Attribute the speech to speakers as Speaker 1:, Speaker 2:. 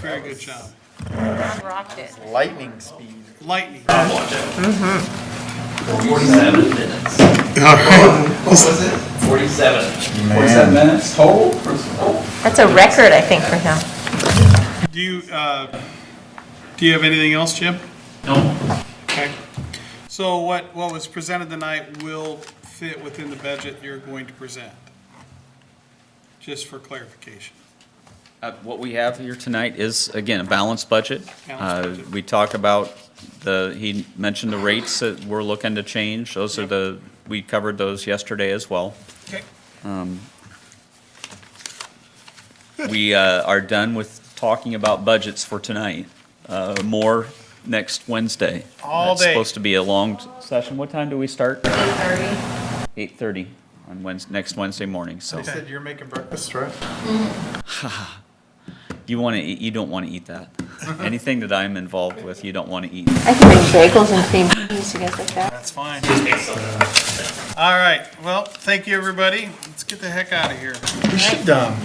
Speaker 1: Very good job.
Speaker 2: I rocked it.
Speaker 3: lightning speed.
Speaker 1: Lightning.
Speaker 4: Forty-seven minutes. Forty-seven.
Speaker 5: Forty-seven minutes total for, oh,
Speaker 2: That's a record, I think, for him.
Speaker 1: Do you, uh, do you have anything else, Jim?
Speaker 4: No,
Speaker 1: Okay. So what, what was presented tonight will fit within the budget you're going to present? Just for clarification.
Speaker 6: Uh, What we have here tonight is, again, a balanced budget.
Speaker 1: Balanced
Speaker 6: Uh,
Speaker 1: budget.
Speaker 6: We talk about the, he mentioned the rates that we're looking to change. Those are the, we covered those yesterday as well.
Speaker 1: Okay.
Speaker 6: We uh, are done with talking about budgets for tonight. Uh, More next Wednesday.
Speaker 3: All
Speaker 6: It's
Speaker 3: day.
Speaker 6: supposed to be a long t- session. What time do we start?
Speaker 2: 8:30.
Speaker 6: 8:30 on Wednesday, next Wednesday morning, so.
Speaker 3: They said you're making breakfast, right?
Speaker 6: You want to, you don't want to eat that. Anything that I'm involved with, you don't want to eat.
Speaker 2: I can make bagels and cream cheese, you guys like that?
Speaker 1: That's fine.
Speaker 4: excellent.
Speaker 1: All right. Well, thank you, everybody. Let's get the heck out of here.
Speaker 3: We should, um,